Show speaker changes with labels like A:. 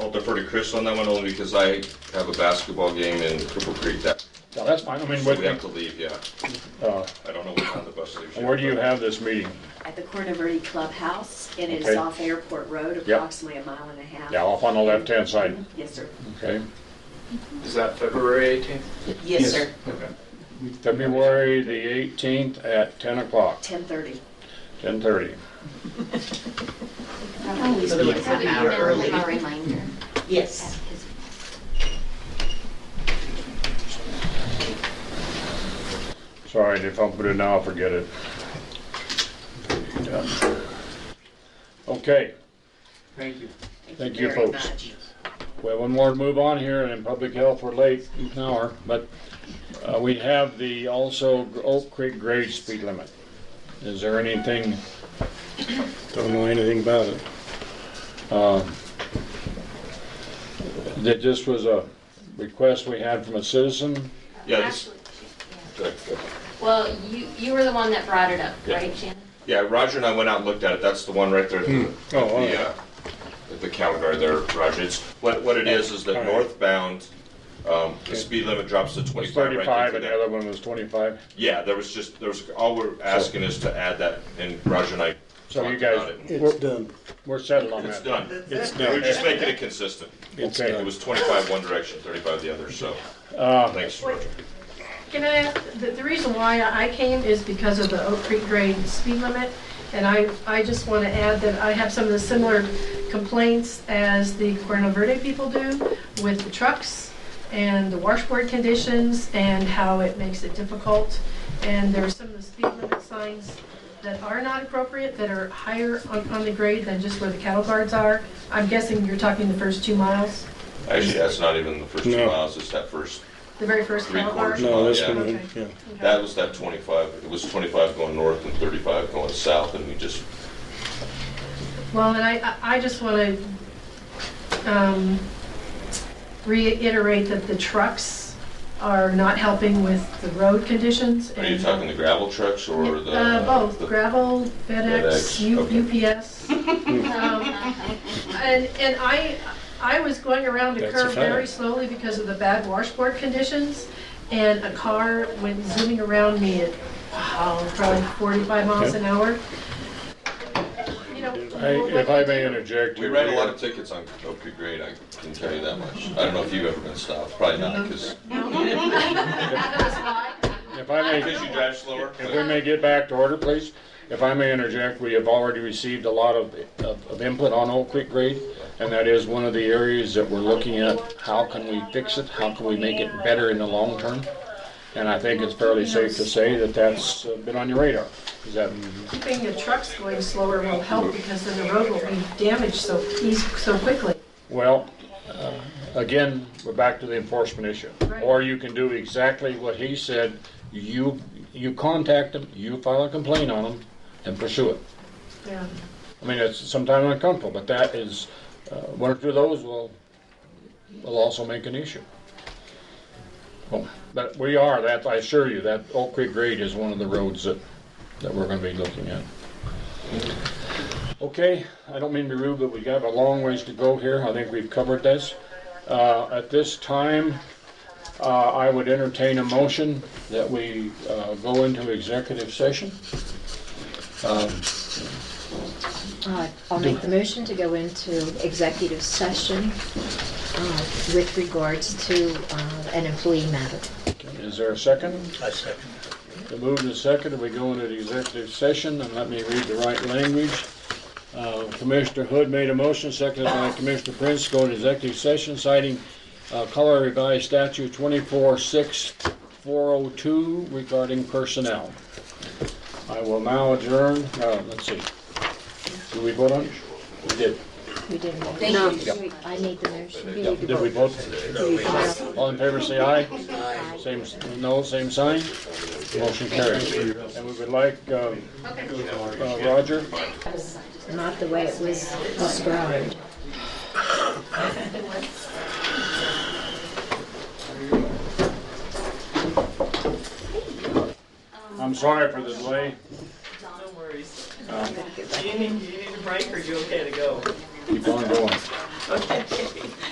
A: I'll defer to Chris on that one only because I have a basketball game in Cripple Creek that,
B: No, that's fine, I mean,
A: so we have
B: what,
A: to leave, yeah.
B: uh,
A: I don't know what time the bus leaves. yet,
B: where do you
A: but-
B: have this meeting?
C: at the Corona Verde Clubhouse, and it is
B: Okay.
C: off Airport Road, approximately a mile and a half.
B: Yeah, off on the left-hand side,
C: Yes, sir.
B: okay?
D: Is that February 18th?
C: Yes, sir.
B: February the 18th at 10 o'clock,
C: 10:30.
B: 10:30.
E: Always be an hour early. Reminder.
C: Yes.
B: Sorry, if I put it now, forget it. Okay,
D: Thank you.
B: Thank you,
C: very
B: folks.
C: much.
B: well, one more to move on here, and in public health, we're late, an hour, but uh, we have the also Oak Creek grade speed limit. Is there anything,
F: Don't know anything about it.
B: uh, that this was a request we had from a citizen?
A: Yeah, this,
E: Actually,
A: good, good.
E: well, you, you were the one that brought it up, right, Shannon?
A: yeah, Roger and I went out and looked at it, that's the one right there. at the-
F: Oh, all right.
A: the, uh, the counter guard there, Roger. It's, what, what it is, is that
F: Alright.
A: northbound, um, the speed limit drops to twenty-five right there.
B: 35, and the other one was 25.
A: Yeah, there was just, there was, all we're asking is to add that, and Roger and I
B: So you
A: talked
B: guys-
A: about it.
F: It's done.
B: We're settled on that.
A: It's done.
F: It's
A: We're
F: done.
A: just making it consistent.
F: It's
B: Okay.
A: It
F: done.
A: was twenty-five one direction, thirty-five the other, so,
B: Uh,
A: thanks, Roger.
G: Can I ask, the, the reason why I came is because of the Oak Creek grade speed limit, and I, I just want to add that I have some of the similar complaints as the Corona Verde people do with the trucks and the washboard conditions and how it makes it difficult. And there are some of the speed limit signs that are not appropriate, that are higher on, on the grade than just where the cattle guards are. I'm guessing you're talking the first two miles,
A: Actually, that's not even the first two
F: No.
A: miles, it's that first,
G: the very first
A: Three
G: cattle
A: quarters.
G: guard.
F: No, this
A: Yeah.
F: one, yeah.
G: Okay.
A: that was that twenty-five, it was twenty-five going north and thirty-five going south, and we just,
G: Well, and I, I- I just want to reiterate that the trucks are not helping with the road conditions.
A: are you
G: and-
A: talking the gravel trucks or the?
G: Uh, Both,
A: the-
G: gravel,
A: FedEx,
G: FedEx, U-
A: okay.
G: UPS. Um, And, and I, I was going around a
F: That's a
G: curve very
F: fact.
G: slowly because of the bad washboard conditions, and a car went zooming around me at, wow, probably 45 miles an hour. You know,
B: I- If I may interject.
A: We write a lot of tickets on Oak Creek Grade, I can tell you that much. I don't know if you've ever been stopped, probably not,
G: Mm-hmm.
A: because,
G: that was why.
B: If I may,
A: you drive slower.
B: if we may get back to order, please. If I may interject, we have already received a lot of, of of input on Oak Creek grade, and that is one of the areas that we're looking at. How can we fix it? How can we make it better in the long term? And I think it's fairly safe to say that that's uh, been on your radar. Is that,
G: Keeping the trucks going slower will help because then the road will be damaged so eas so quickly.
B: well, uh, again, we're back to the enforcement issue.
G: Right.
B: Or you can do exactly what he said. You, you contact them, you file a complaint on them, and pursue it.
G: Yeah.
B: I mean, it's sometimes uncomfortable, but that is, uh, one or two of those will, will also make an issue. Well, But we are, that, I assure you, that Oak Creek grade is one of the roads that, that we're gonna be looking at. Okay, I don't mean to be rude, but we got a long ways to go here, I think we've covered this. Uh, at this time, uh, I would entertain a motion that we, uh, go into executive session.
H: Uh, I'll make the motion to go into executive session uh, with regards to uh, an employee matter.
B: Is there a second?
F: I second.
B: The move and second, we go into the executive session, and let me read the right language. Uh, Commissioner Hood made a motion, seconded by Commissioner Prince, to go into executive session citing uh, Colorado Revised Statute 246402 regarding personnel. I will now adjourn, uh, let's see, do we vote on? it? We did.
H: We didn't. vote.
E: Thank
H: No,
E: you.
H: I made the motion. We need to
B: Did we
H: vote.
B: vote?
H: Uh,
B: All in favor, say aye. Same, s- no, same sign. Motion carries. And we would like um, uh, Roger.
H: Not the way it was described.
B: I'm sorry for the delay.
I: No worries. Do you need, do you need a break or you okay to go?
B: Keep on going.
G: Okay.